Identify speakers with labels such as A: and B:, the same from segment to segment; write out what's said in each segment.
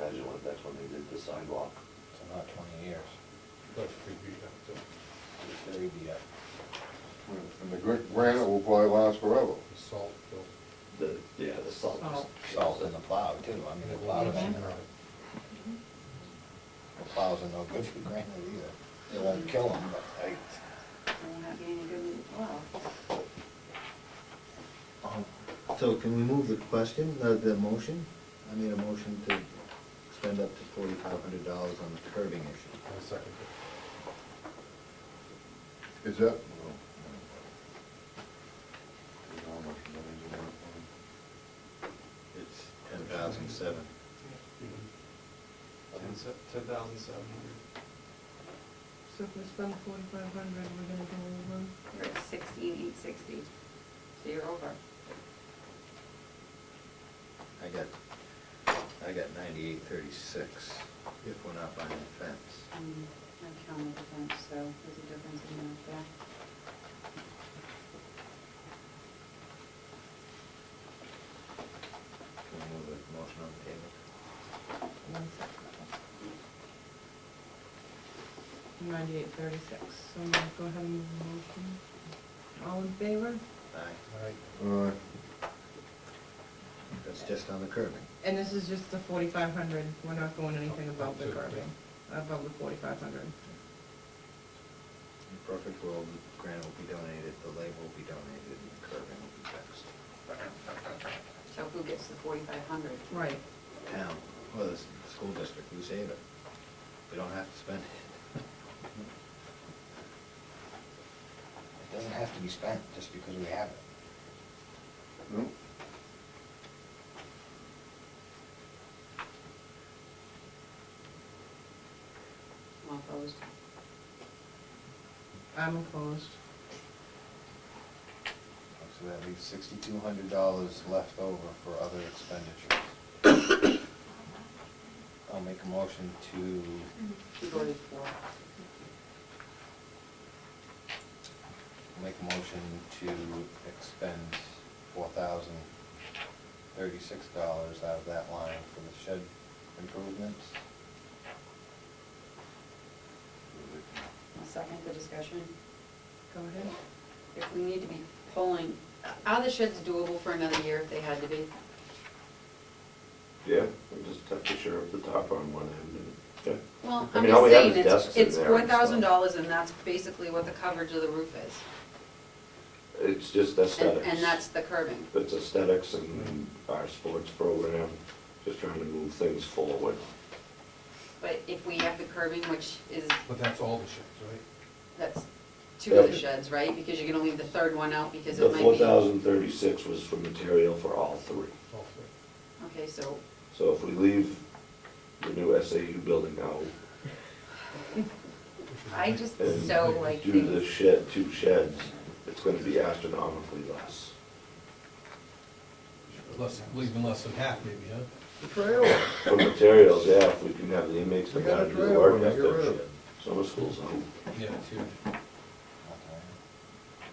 A: Agilent, that's when they did the sidewalk.
B: So not twenty years,
C: That's pretty beat up, the,
B: thirty be uh, up.
D: And the gr- granite will probably last forever.
C: the salt, built.
A: The, yeah, the salt.
E: Salt.
B: Salt in the plow too, I mean, the plow is,
E: Mhm.
B: the plows are no good for granite either. It won't kill them, but I,
E: They're not getting any good, well,
F: Um, So can we move the question, uh, the motion? I made a motion to spend up to forty-five hundred dollars on the curbing issue.
C: I second it.
D: Is that?
F: It's ten thousand seven.
G: Ten se- ten thousand seven hundred.
H: So if we spend forty-five hundred, we're gonna go over,
E: you're at sixteen, eight sixty, so you're over.
F: I got, I got ninety-eight thirty-six, if we're not buying a fence.
E: Um, I counted the fence, so there's a difference in that there.
F: Can we move the motion on the table?
H: one second. Ninety-eight thirty-six, so I'm gonna go ahead and move the motion. All in favor?
F: Aye,
C: All right,
D: Alright,
F: that's just on the curbing.
H: And this is just the forty-five hundred, we're not going anything above the
C: Up to, yeah.
H: curbing, above the forty-five hundred.
F: In a perfect world, the granite will be donated, the labor will be donated, and the curbing will be fixed.
E: So who gets the forty-five hundred?
H: Right,
F: Town, well, the s- school district, we save it. We don't have to spend it.
B: it doesn't have to be spent just because we have it.
D: no,
E: I'm opposed.
H: I'm opposed.
B: So that leaves sixty-two hundred dollars left over for other expenditures. I'll make a motion to,
E: You voted for.
B: I'll make a motion to expend four thousand thirty-six dollars out of that line for the shed improvements.
E: I'll second the discussion.
H: Go ahead.
E: If we need to be pulling, are the sheds doable for another year if they had to be?
A: Yeah, we just have to share up the top on one end and, yeah.
E: Well,
A: I
E: I'm
A: mean, all
E: just
A: we have
E: saying,
A: is
E: it's,
A: desks in
E: it's
A: there
E: four
A: and stuff.
E: thousand dollars and that's basically what the coverage of the roof is.
A: It's just
E: And,
A: aesthetics.
E: and that's the curbing.
A: It's aesthetics and our sports program, just trying to move things forward.
E: But if we have the curbing, which is,
C: but that's all the sheds, right?
E: that's two of the
A: Yeah.
E: sheds, right? Because you're gonna leave the third one out because
A: The
E: it might be.
A: four thousand thirty-six was for material for all three.
C: All three.
E: Okay, so,
A: So if we leave the new SAU building out
C: Which is
E: I
C: nice.
E: just,
A: and
E: so like,
A: do the
E: things-
A: shed, two sheds, it's gonna be astronomically less.
C: Less, leaving less than half maybe, huh?
D: the trail.
A: For materials, yeah, if we can have the inmates come
D: We got
A: down
D: a
A: and do the
D: drill
A: work,
D: when
A: that's
D: you get
A: their
D: rid of
A: shit.
D: it.
A: Summer school's out.
C: Yeah, it's huge.
B: Okay.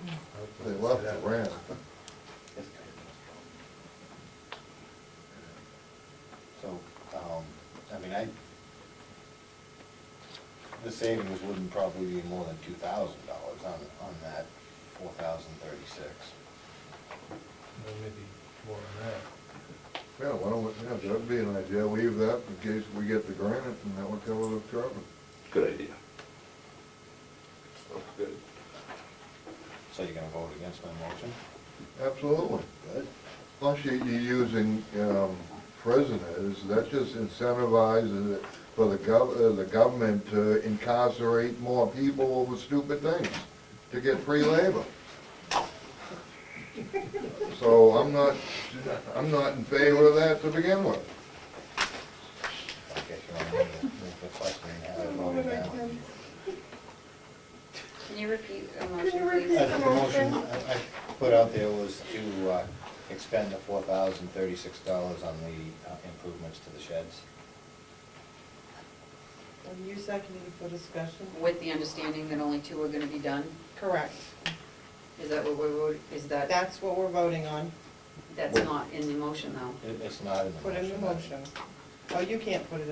C: I would
D: They
C: say
D: left
C: that.
D: the ran.
B: So, um, I mean, I, the savings wouldn't probably be more than two thousand dollars on, on that four thousand thirty-six.
C: Well, Maybe more than that.
D: Yeah, why don't, we- yeah, that'd be an idea, leave that in case we get the granite and that would cover the curbing.
A: Good idea. Oh, Good.
B: So you're gonna vote against my motion?
D: Absolutely. Plus you, you're using, um, prisoners, that just incentivizes it for the gov, uh, the government to incarcerate more people over stupid things, to get free labor. So I'm not, I'm not in favor of that to begin with.
B: I guess you wanna move the- move the question and have it voted down.
E: can you repeat a motion, please?
B: I think the motion I I put out there was to uh, expend the four thousand thirty-six dollars on the uh, improvements to the sheds.
H: And you seconded for discussion?
E: With the understanding that only two are gonna be done?
H: Correct.
E: Is that what we're, voting- is that,
H: That's what we're voting on.
E: that's not in the motion though?
B: It- It's not in the motion.
H: Put in the
B: but-
H: motion. Oh, you can't put it